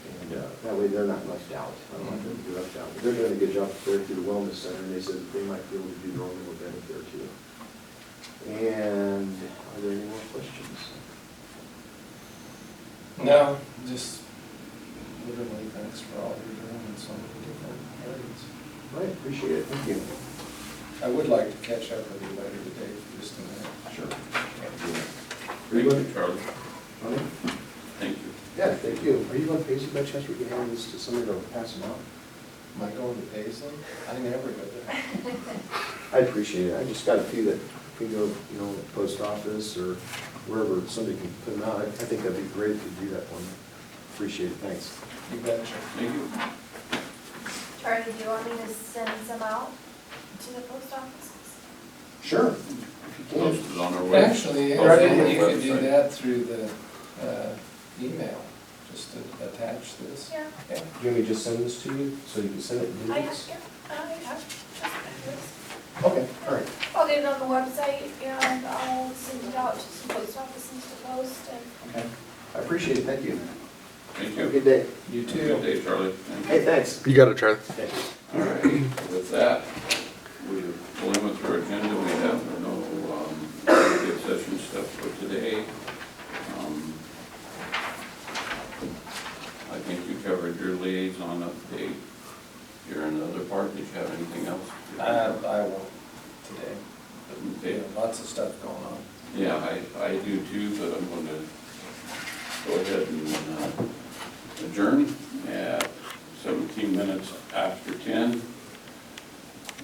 they- they're not left out. I don't want them to be left out. They're doing a good job there through the wellness center, and they said that they might be able to do their own little event there too. And are there any more questions? No, just literally thanks for all you're doing in so many different areas. All right, appreciate it, thank you. I would like to catch up with you later today for just a minute. Sure. Are Thank you you, going, Charlie. Bonnie? Thank you. Yeah, thank you. Are you going to pay some by chance we can hand this to somebody to pass them out? Am I going to Paisley? I never go there. I appreciate it. I just got a few that can go, you know, post office or wherever somebody can put them out. I I think that'd be great if you do that one. Appreciate it, thanks. You betcha. Thank you. Charlie, do you want me to send some out to the post offices? Sure. Post it on our web- Actually, post it on our Eric, you could do website. that through the uh, email, just to attach this. Yeah. Yeah. Do you want me to just send this to you so you can send it? I have, Oh, Uh, yeah, I have. Okay, all right. I'll get it on the website and I'll send it out to some post offices to post and Okay. I appreciate it, thank you. Thank Have a you. good day. You Have a Good too. day, Charlie. Hey, Thank you. thanks. You got it, Charlie. Thank you. All right, with that, we have going through our agenda. We have no um, executive session stuff for today. Um, I think you covered your liaison update. You're in the other part. Did you have anything else? I, I won't today. Okay. Yeah, Lots of stuff going on. Yeah, I, I do too, but I'm going to go ahead and uh, adjourn at 17 minutes after 10.